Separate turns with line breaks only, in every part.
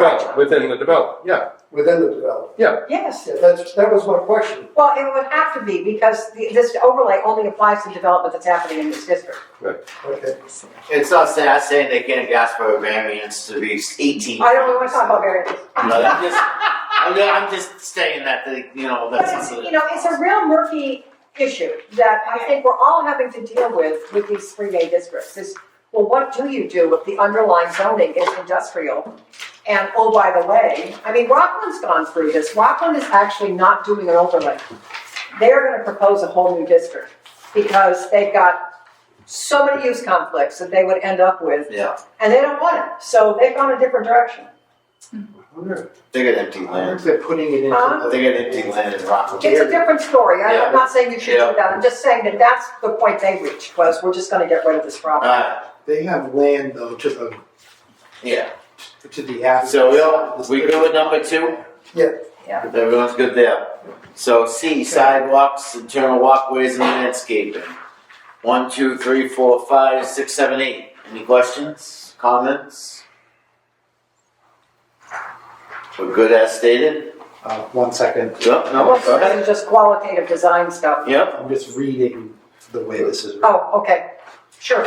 Development, within the development, yeah,
within the development.
yeah.
Yes.
Yeah, that's, that was my question.
Well, it would have to be because the- this overlay only applies to development that's happening in this district.
Okay.
It's not saying, not saying they can't ask for a variance to be eighteen.
I don't want to talk about variances.
No, I'm just, I'm, ju- I'm just saying that, the, you know,
But
that's.
it's, you know, it's a real murky issue that I think we're all having to deal with with these three A districts is, well, what do you do if the underlying zoning is industrial? And oh, by the way, I mean, Rockland's gone through this. Rockland is actually not doing an overlay. They're gonna propose a whole new district because they've got so many use conflicts that they would end up with.
Yeah,
And they don't want it, so they've gone a different direction.
they got empty land.
they're putting it
Huh?
They got empty land in Rockland.
It's a different story. I-
Yeah.
I'm not saying you should
Yeah.
do that. I'm just saying that that's the point they reached was we're just gonna get rid of this problem.
Uh,
They have land though to the,
yeah,
to the after.
so we'll, we go with number two?
Yeah.
Yeah.
Everyone's good there. So C, sidewalks, internal walkways and landscaping. One, two, three, four, five, six, seven, eight. Any questions, comments? We're good as stated?
Uh, one second,
Yep, no,
Well,
go
this
ahead.
is just qualitative design stuff.
Yep,
I'm just reading the way this is written.
Oh, okay, sure.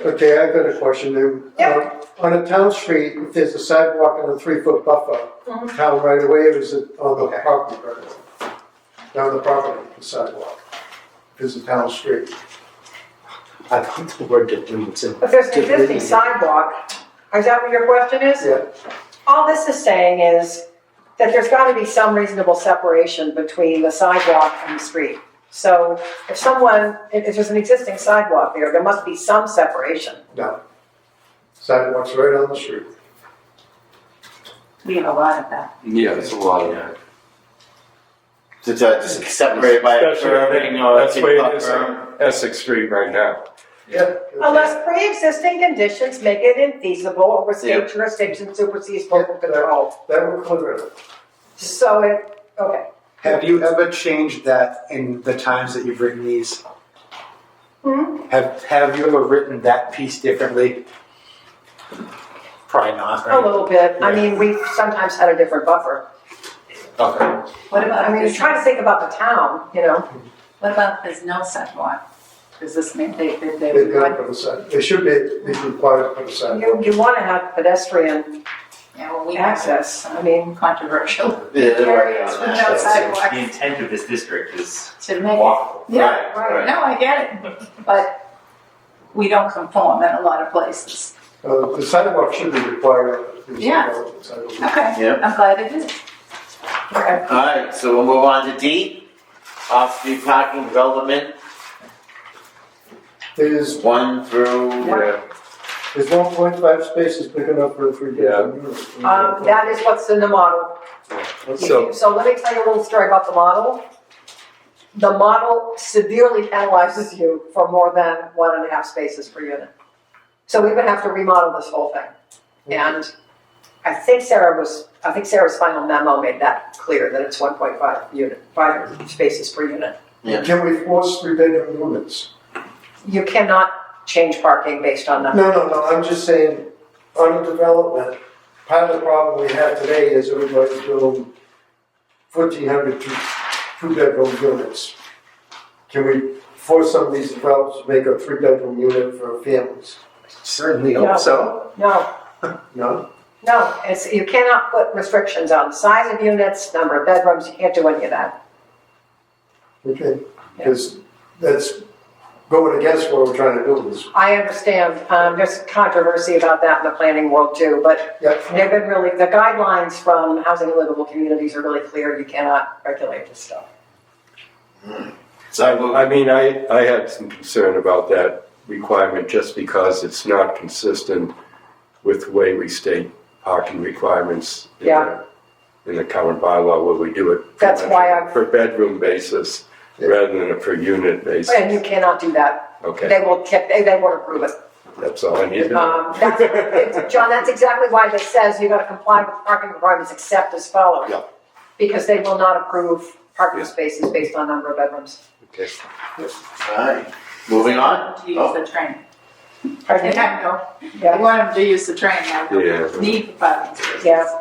Okay, I've got a question then.
Yeah.
Uh, On a town street, if there's a sidewalk and a three foot buffer,
Mhm.
town right away, or is it on the
Okay.
property right away? Down the property, the sidewalk, if it's a town street.
I thought the word deletes it.
If there's an
Just reading
existing
it.
sidewalk, is that what your question is?
Yeah.
All this is saying is that there's gotta be some reasonable separation between the sidewalk and the street. So if someone, if if there's an existing sidewalk there, there must be some separation.
No. Sidewalk's right on the street.
We have a lot of that.
Yeah, it's a lot of that.
to, to just separate by a curving or a
That's where it
kick
is on Essex Street right now.
Yep.
Unless pre-existing conditions make it infeasible or where
Yeah.
state jurisdiction supersedes local
Yeah.
control.
That will clear it.
So it, okay,
Have you ever changed that in the times that you've written these?
Hmm?
Have, have you ever written that piece differently? Probably not,
a
right?
little bit. I
Yeah.
mean, we've sometimes had a different buffer.
Okay.
What
I mean,
about if
you
there's,
try to think about the town, you know?
what about if there's no sidewalk? Does this mean they, they, they
They've
would
got to
like,
put a side, they should be, be required to put a sidewalk.
You, you want to have pedestrian
yeah, well, we have
access. I mean,
some controversial areas with no
Yeah,
sidewalks
The intent of this district is
to make it.
walkable.
Yeah,
Right,
right,
right.
no, I get it, but we don't conform in a lot of places.
Uh, the sidewalk should be required.
Yeah. Okay,
Yep.
I'm glad it is.
okay.
Alright, so we'll move on to D, off-street parking development,
There's,
one through,
Yeah,
there's one point five spaces big enough for a three bedroom unit.
Um, that is what's in the model.
so,
So let me tell you a little story about the model. The model severely penalizes you for more than one and a half spaces per unit. So we would have to remodel this whole thing. And I think Sarah was, I think Sarah's final memo made that clear, that it's one point five unit, five spaces per unit.
Can we force three bedroom units?
You cannot change parking based on
No,
that.
no, no, I'm just saying, on the development, part of the problem we have today is everybody's building fourteen hundred two, two bedroom units. Can we force some of these developers to make a three bedroom unit for families?
Certainly
Yeah.
hope so.
No,
No?
no, it's, you cannot put restrictions on size of units, number of bedrooms, you can't do any of that.
Okay, because that's going against what we're trying to do is,
I understand, um, there's controversy about that in the planning world too, but
yep.
They've been really, the guidelines from Housing and Livable Communities are really clear, you cannot regulate this stuff.
so I move,
I mean, I, I had some concern about that requirement just because it's not consistent with the way we state parking requirements in
Yeah.
the, in the current bylaw where we do it.
That's why I-
Per bedroom basis rather than a per unit
And you
basis.
cannot do that,
Okay,
they will kick, they, they won't approve it.
that's all I needed.
Um, that's, it's- John, that's exactly why this says you gotta comply with parking requirements except as follows.
Yeah.
Because they will not approve parking
Yeah.
spaces based on number of bedrooms.
Okay.
alright, moving on.
To use the train. They have no,
Yeah.
they want them to use the train now,
Oh.
Yeah.
need the parking spaces.
Yeah.